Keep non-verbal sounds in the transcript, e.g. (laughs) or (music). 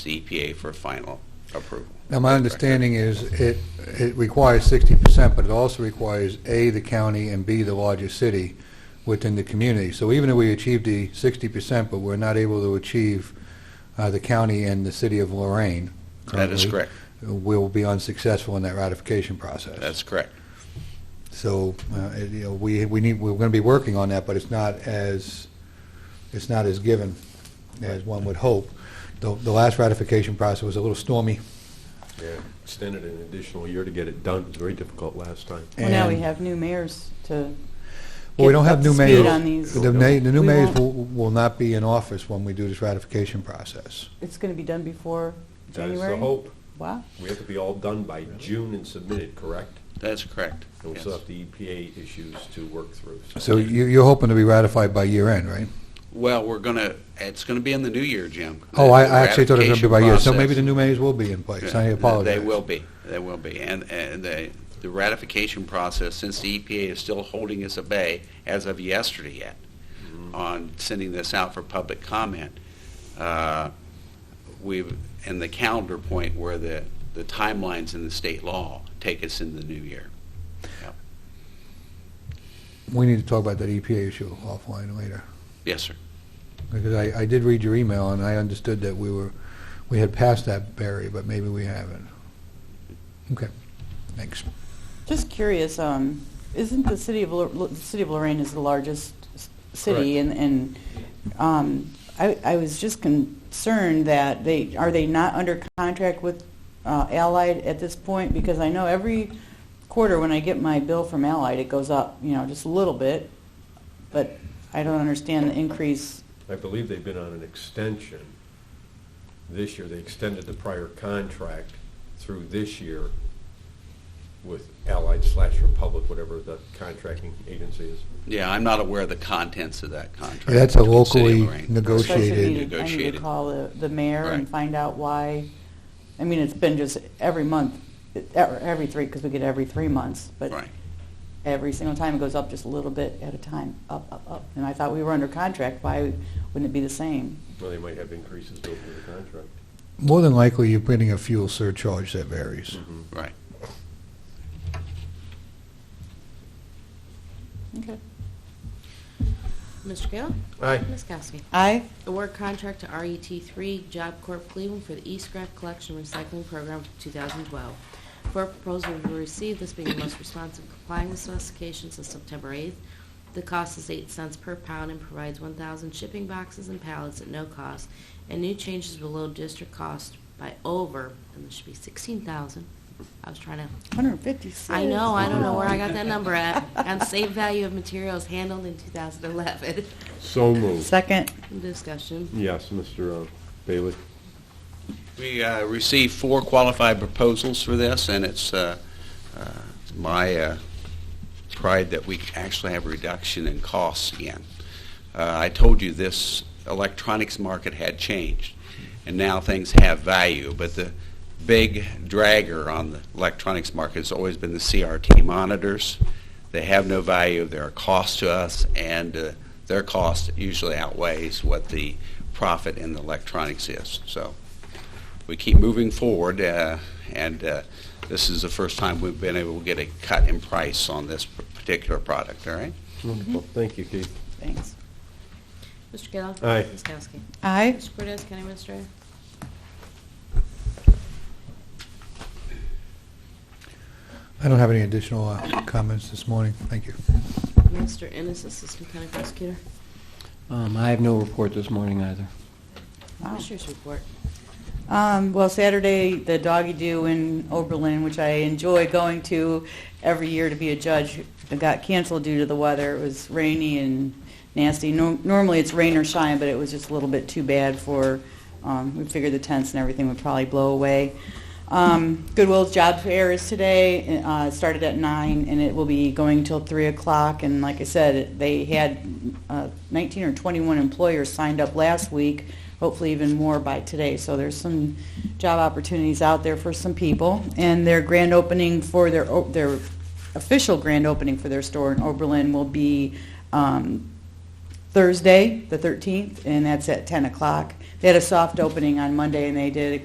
to EPA for final approval. Now, my understanding is it, it requires sixty percent, but it also requires A, the county, and B, the largest city within the community. So even if we achieve the sixty percent, but we're not able to achieve uh, the county and the city of Lorraine. That is currently, correct. We'll be unsuccessful in that ratification process. That's correct. So, uh, it- you know, we, we need, we're going to be working on that, but it's not as, it's not as given as one would hope. The, the last ratification process was a little stormy. Yeah, extended an additional year to get it done. It was very difficult last time. Well, now we and- have new mayors to. Well, we get don't up have to new speed mayors. on these. The na- the new We mayors won't. will, will not be in office when we do this ratification process. It's going to be done before That January? is the hope. Wow. We have to be all done by June and submitted, correct? That's correct. And we Yes. still have the EPA issues to work through. So you, you're hoping to be ratified by year end, right? Well, we're gonna, it's gonna be in the new year, Jim. Oh, I, I The actually thought it was going to be by year, so ratification maybe the process. new mayors will be in place, I Yeah, apologize. They will be, they will be. And, and the, the ratification process, since the EPA is still holding us at bay as of yesterday yet on sending this out for public comment, uh, we've, and the calendar point where the, the timelines in the state law take us in the new year. We need to talk about that EPA issue offline later, Yes, sir. because I, I did read your email, and I understood that we were, we had passed that barrier, but maybe we haven't. Okay, thanks. Just curious, um, isn't the city of, Lor- Lo- the city of Lorraine is the largest s- city? And, and um, I, I was just concerned that they, are they not under contract with uh, Allied at this point? Because I know every quarter when I get my bill from Allied, it goes up, you know, just a little bit. But I don't understand the increase. I believe they've been on an extension. This year, they extended the prior contract through this year with Allied slash Republic, whatever the contracting agency is. Yeah, I'm not aware of the contents of that contract. Yeah, That's a between City of locally Lorraine. So I should negotiated. need to- I need to Negotiated. call the, the mayor and Right. find out why, I mean, it's been just every month, e- every three, because we get every three months, but Right. every single time it goes up just a little bit at a time, up, up, up. And I thought we were under contract, why wouldn't it be the same? Well, they might have increases built into the contract. More than likely, you're putting a fuel surcharge that varies. Right. Okay. Mr. Kayla? Aye. Ms. Kowski? Aye. Award contract to RET3 Job Corp Cleveland for the e-scrap collection and recycling program for 2012. Four proposals were received, this being the most responsive complying with specifications of September 8th. The cost is 8 cents per pound and provides 1,000 shipping boxes and pallets at no cost, and new changes below district cost by over, and this should be 16,000. I was trying to 156. I know, I don't know where I got that number at. (laughs) And save value of materials handled in 2011. So moved. Second. Discussion. Yes, Mr. Bailey. We uh, received four qualified proposals for this, and it's uh, uh, my uh, pride that we actually have a reduction in costs again. Uh, I told you this electronics market had changed, and now things have value, but the big dragger on the electronics market has always been the CRT monitors. They have no value, they're a cost to us, and uh, their cost usually outweighs what the profit in the electronics is. So we keep moving forward, uh, and uh, this is the first time we've been able to get a cut in price on this p- particular product, all right? Mm-hmm. Wonderful. Thank you, Keith. Thanks. Mr. Kayla? Aye. Ms. Kowski? Aye. Mr. Cortez, County Minister? I don't have any additional uh, comments this morning. Thank you. Minister Ennis, Assistant County Prosecutor. Um, I have no report this morning either. Wow. Commissioners report. Um, well, Saturday, the doggy do in Oberlin, which I enjoy going to every year to be a judge, it got canceled due to the weather. It was rainy and nasty. No, normally it's rain or shine, but it was just a little bit too bad for, um, we figured the tents and everything would probably blow away. Um, Goodwill's job fair is today. Uh, it started at 9 and it will be going till 3 o'clock. And like I said, they had uh, 19 or 21 employers signed up last week, hopefully even more by today. So there's some job opportunities out there for some people. And their grand opening for their, o- their official grand opening for their store in Oberlin will be um, Thursday, the 13th, and that's at 10 o'clock. They had a soft opening on Monday, and they did a